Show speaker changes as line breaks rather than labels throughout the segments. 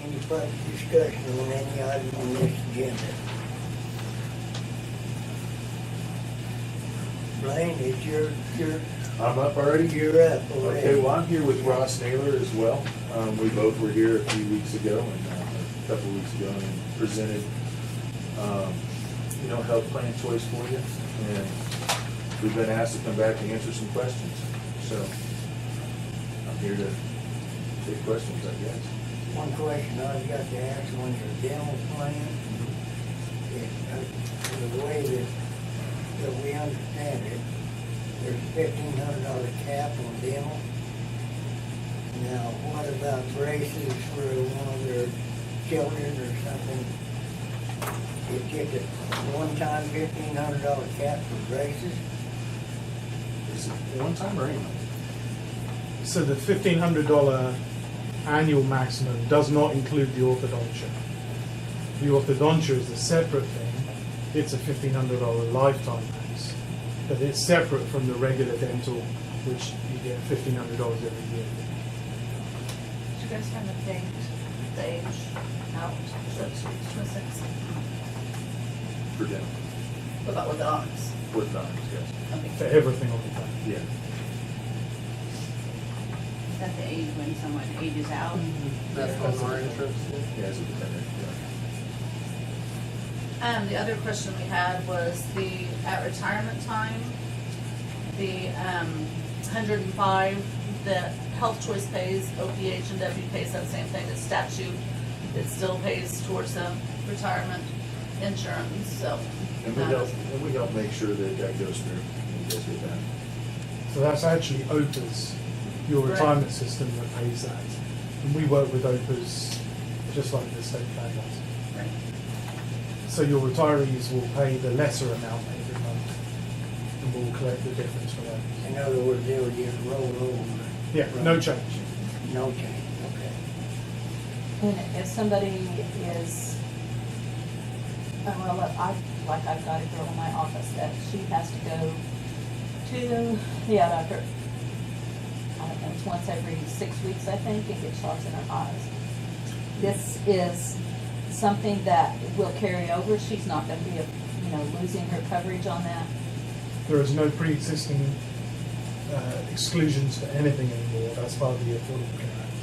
public discussion on any item on this agenda? Blaine, it's your, your,
I'm up already.
you're up
Okay,
already.
well, I'm here with Ross Naylor as well. Um, we both were here a few weeks ago and, uh, a couple weeks ago and presented, um, you know, health plan choice for you. And we've been asked to come back and answer some questions. So I'm here to take questions, I guess.
One question I've got to ask on your dental plan, is, uh, the way that, that we understand it, there's fifteen hundred dollar cap on dental. Now, what about braces for one of their children or something? It's just a one-time fifteen hundred dollar cap for braces?
Is it one time or anything?
So the fifteen hundred dollar annual maximum does not include the orthodontia. The orthodontia is a separate thing. It's a fifteen hundred dollar lifetime max, but it's separate from the regular dental, which you get fifteen hundred dollars every year.
Do you guys have a date, the age out?
For dental,
What about with the arms?
with times, yes.
For everything on the plan.
Yeah.
Is that the age when someone ages out?
That's on our interest.
Yeah, it's a dependent, yeah.
And Um, the other question we had was the, at retirement time, the um, 105, the Health Choice pays, OPH and W pays that same thing, it's statute. It still pays towards the retirement insurance, so.
And we
um,
help, and we help make sure that that goes through. and goes with that.
So that's actually OPA's, your
Right.
retirement system that pays that. And we work with OPA's just like the state plan does.
right.
So your retirees will pay the lesser amount every month and we'll collect the difference from that.
In other words, they would just roll over.
Yeah, no change.
No change, okay.
And if somebody is, oh, well, look, I, like I've got a girl in my office that she has to go to the eye doctor. I don't know, it's once every six weeks, I think, and get shots in her eyes. This is something that will carry over. She's not gonna be, you know, losing her coverage on that.
There is no pre-existing uh, exclusions for anything anymore. That's part of the Affordable Care Act.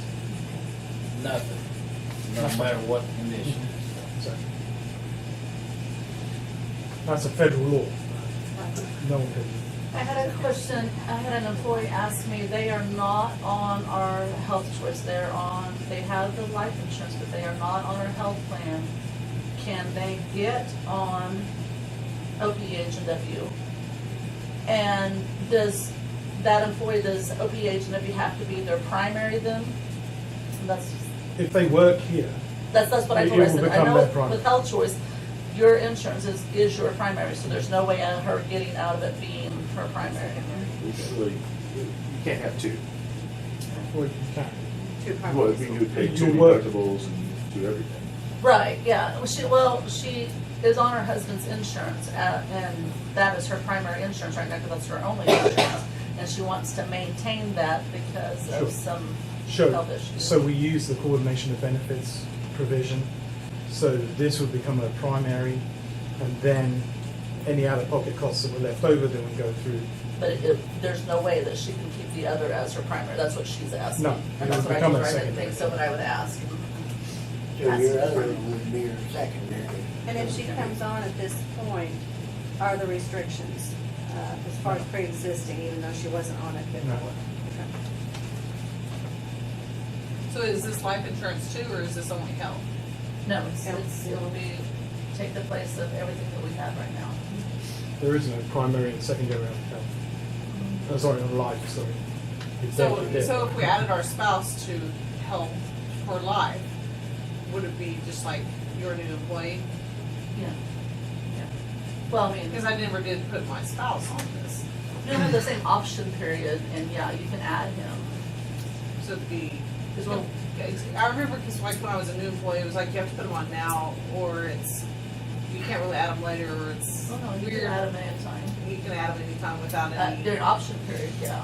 Nothing, no matter what the condition.
So that's a federal law. No one can.
I had a question, I had an employee ask me, they are not on our health choice, they're on, they have the life insurance, but they are not on our health plan. Can they get on OPH and W? And does that employee, does OPH and W have to be their primary then? That's,
If they work here,
that's, that's what I
It-
told her,
it
I
will
said, I
become
know
their primary.
with health choice, your insurance is, is your primary, so there's no way of her getting out of it being her primary.
Usually, you can't have two.
well, you can.
Well, if you do pay two
You'll work.
deductibles and do everything.
Right, yeah, Well, she, well, she is on her husband's insurance, uh, and that is her primary insurance right now, because that's her only insurance. And she wants to maintain that because
Sure.
of some
Sure.
health issues.
So we use the coordination of benefits provision. So this would become a primary, and then any out-of-pocket costs that were left over then would go through.
But it- it, there's no way that she can keep the other as her primary, that's what she's asking.
No, it
And that's
would
what I
become
told
a
her, I didn't
secondary.
think so, but I would ask.
So your other one would be your secondary.
And if she comes on at this point, are the restrictions, uh, as far as pre-existing, even though she wasn't on it
No.
before? Okay.
So is this life insurance too, or is this only health?
No, it's, it's, it'll be, take the place of everything that we have right now.
Mm-hmm.
There is no primary and secondary on health. Oh, sorry, on life, sorry. It's
So,
dead, it's
so
dead.
if we added our spouse to health for life, would it be just like you're a new employee?
Yeah, yeah. Well, I mean.
Because I never did put my spouse on this,
You have the same option period, and yeah, you can add him. oh
so it'd be.
As well.
I remember, because like when I was a new employee, it was like you have to put them on now, or it's, you can't really add them later, or it's
Oh, no, you
weird.
can add him anytime.
You can add them anytime without
Uh,
any.
During option period, yeah.